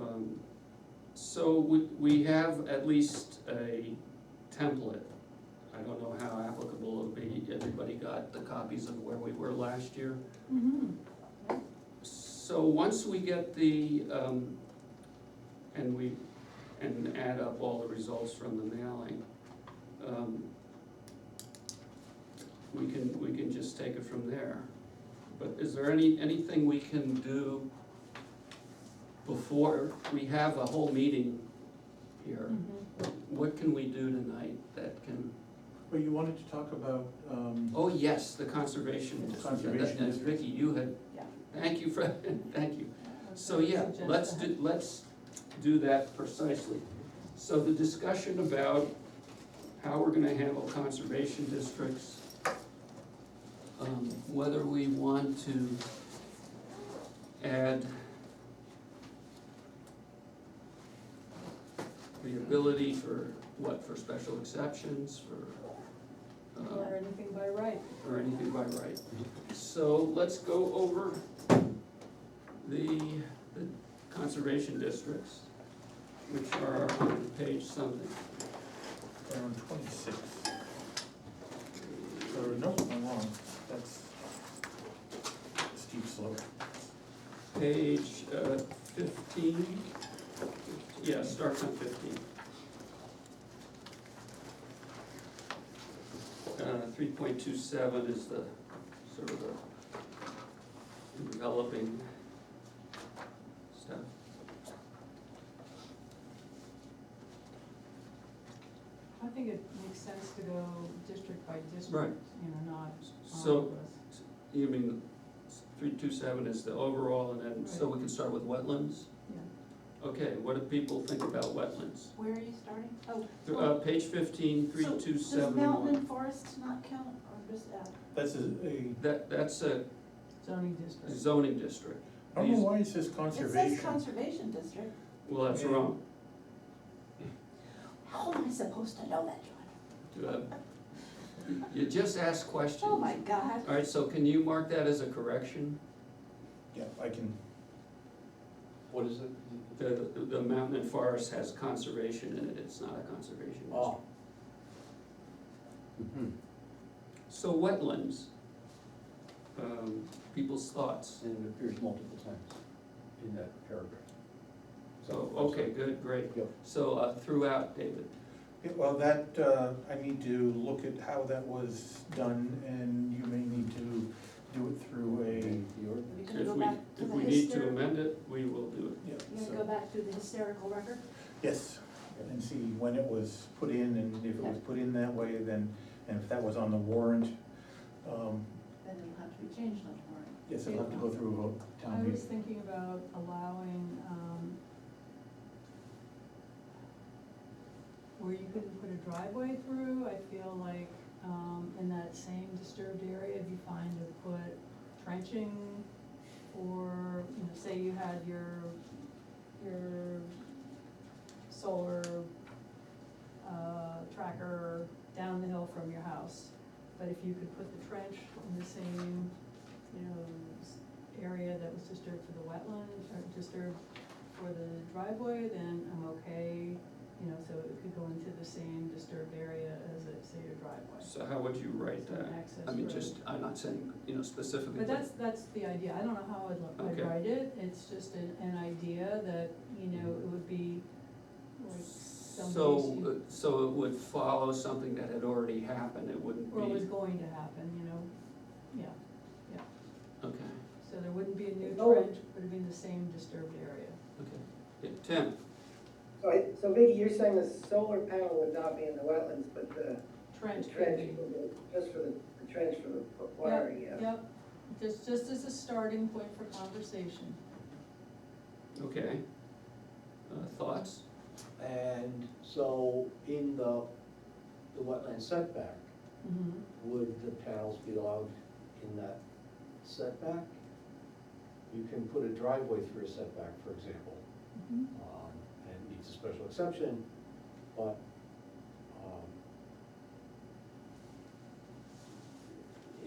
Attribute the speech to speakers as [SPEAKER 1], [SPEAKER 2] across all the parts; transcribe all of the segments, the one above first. [SPEAKER 1] Um, So we, we have at least a template. I don't know how applicable it'll be, everybody got the copies of where we were last year.
[SPEAKER 2] Mhm.
[SPEAKER 1] So once we get the, um, and we, and add up all the results from the mailing, um, we can, we can just take it from there. But is there any, anything we can do before, we have a whole meeting here. What can we do tonight that can,
[SPEAKER 3] Well, you wanted to talk about, um,
[SPEAKER 1] oh, yes, the conservation district.
[SPEAKER 3] Conservation
[SPEAKER 1] And
[SPEAKER 3] district.
[SPEAKER 1] Vicky, you had,
[SPEAKER 2] Yeah.
[SPEAKER 1] thank you, for thank you.
[SPEAKER 2] Uh,
[SPEAKER 1] So, yeah,
[SPEAKER 2] suggest
[SPEAKER 1] let's
[SPEAKER 2] that.
[SPEAKER 1] do, let's do that precisely. So the discussion about how we're gonna handle conservation districts, um, whether we want to add the ability for, what, for special exceptions, for, uh,
[SPEAKER 2] Or anything by right.
[SPEAKER 1] or anything by right. So let's go over the, the conservation districts, which are on page something.
[SPEAKER 3] around twenty-six, or no, I'm wrong, that's steep slope.
[SPEAKER 1] Page uh, fifteen, yeah, starts on fifteen. Uh, three point two seven is the, sort of the enveloping stuff.
[SPEAKER 2] I think it makes sense to go district by
[SPEAKER 1] Right.
[SPEAKER 2] district, you know, not all
[SPEAKER 1] So
[SPEAKER 2] of us.
[SPEAKER 1] You mean, three two seven is the overall, and then, so we can start with wetlands?
[SPEAKER 2] Yeah.
[SPEAKER 1] Okay, what do people think about wetlands?
[SPEAKER 4] Where are you starting? Oh.
[SPEAKER 1] Uh, page fifteen, three two
[SPEAKER 4] Does
[SPEAKER 1] seven
[SPEAKER 4] mountain
[SPEAKER 1] one.
[SPEAKER 4] and forest not count, or uh, does that?
[SPEAKER 3] That's a, a,
[SPEAKER 1] That, that's a
[SPEAKER 2] Zoning district.
[SPEAKER 1] zoning district,
[SPEAKER 3] I don't know why it says
[SPEAKER 4] It
[SPEAKER 3] conservation.
[SPEAKER 4] says conservation district.
[SPEAKER 1] well, that's wrong.
[SPEAKER 4] How am I supposed to know that, John?
[SPEAKER 1] Uh, You just ask questions.
[SPEAKER 4] Oh, my God.
[SPEAKER 1] All right, so can you mark that as a correction,
[SPEAKER 3] Yeah, I can,
[SPEAKER 5] What is it?
[SPEAKER 1] the, the mountain and forest has conservation in it, it's not a conservation district.
[SPEAKER 5] Oh. Mm-hmm.
[SPEAKER 1] So wetlands, um, people's thoughts.
[SPEAKER 5] And it appears multiple times in that paragraph.
[SPEAKER 1] So, Oh, okay, good, great.
[SPEAKER 5] Yep.
[SPEAKER 1] So uh, throughout, David,
[SPEAKER 3] yeah, well, that, uh, I need to look at how that was done, and you may need to do it through a,
[SPEAKER 5] The order.
[SPEAKER 4] Are we gonna
[SPEAKER 1] if
[SPEAKER 4] go
[SPEAKER 1] we,
[SPEAKER 4] back to
[SPEAKER 1] if
[SPEAKER 4] the
[SPEAKER 1] we need to
[SPEAKER 4] hyster-
[SPEAKER 1] amend it, we will do
[SPEAKER 3] yeah,
[SPEAKER 4] You gonna go
[SPEAKER 3] so,
[SPEAKER 4] back to the hysterical record?
[SPEAKER 3] yes, and see when it was put in, and if it was put in that way, then, and if that was on the warrant, um,
[SPEAKER 4] Then it'll have to be changed on the
[SPEAKER 3] yes, it'll have to go through a vote,
[SPEAKER 2] I
[SPEAKER 3] town meeting.
[SPEAKER 2] was thinking about allowing, um, where you couldn't put a driveway through, I feel like, um, in that same disturbed area, it'd be fine to put trenching or, you know, say you had your, your solar, uh, tracker down the hill from your house. But if you could put the trench in the same, you know, s- area that was disturbed for the wetland, or disturbed for the driveway, then I'm okay, you know, so it could go into the same disturbed area as, it- say, your
[SPEAKER 1] it.
[SPEAKER 2] driveway.
[SPEAKER 1] So how would you write
[SPEAKER 2] So an
[SPEAKER 1] that?
[SPEAKER 2] access
[SPEAKER 1] uh, I mean,
[SPEAKER 2] road.
[SPEAKER 1] just, I'm not saying, you know, specifically.
[SPEAKER 2] But that's, that's the idea, I don't know how I'd, lo- I'd
[SPEAKER 1] Okay.
[SPEAKER 2] write it, it's just an, an idea that, you know, it would be like some place
[SPEAKER 1] So,
[SPEAKER 2] you-
[SPEAKER 1] uh, so it would follow something that had already happened, it wouldn't
[SPEAKER 2] or was
[SPEAKER 1] be,
[SPEAKER 2] going to happen, you know, yeah,
[SPEAKER 1] okay,
[SPEAKER 2] so there wouldn't be a new
[SPEAKER 6] Oh.
[SPEAKER 2] trench, but it'd be in the same disturbed area.
[SPEAKER 1] okay. Yeah, Tim,
[SPEAKER 6] So I, so Vicky, you're saying the solar panel would not be in the wetlands, but the the
[SPEAKER 2] Trench.
[SPEAKER 6] trench, would be- just for the, the trench for the water, yeah.
[SPEAKER 2] Yep, just, just as a starting point for conversation.
[SPEAKER 1] okay. Uh, Thoughts?
[SPEAKER 5] And so in the, the wetland setback,
[SPEAKER 2] Mm-hmm.
[SPEAKER 5] would the panels be allowed in that setback? You can put a driveway through a setback, for example,
[SPEAKER 2] Mm-hmm.
[SPEAKER 5] um, and needs a special exception, but, um,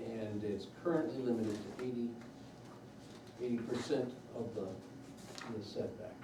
[SPEAKER 5] and it's currently limited to eighty, eighty percent of the, the setback.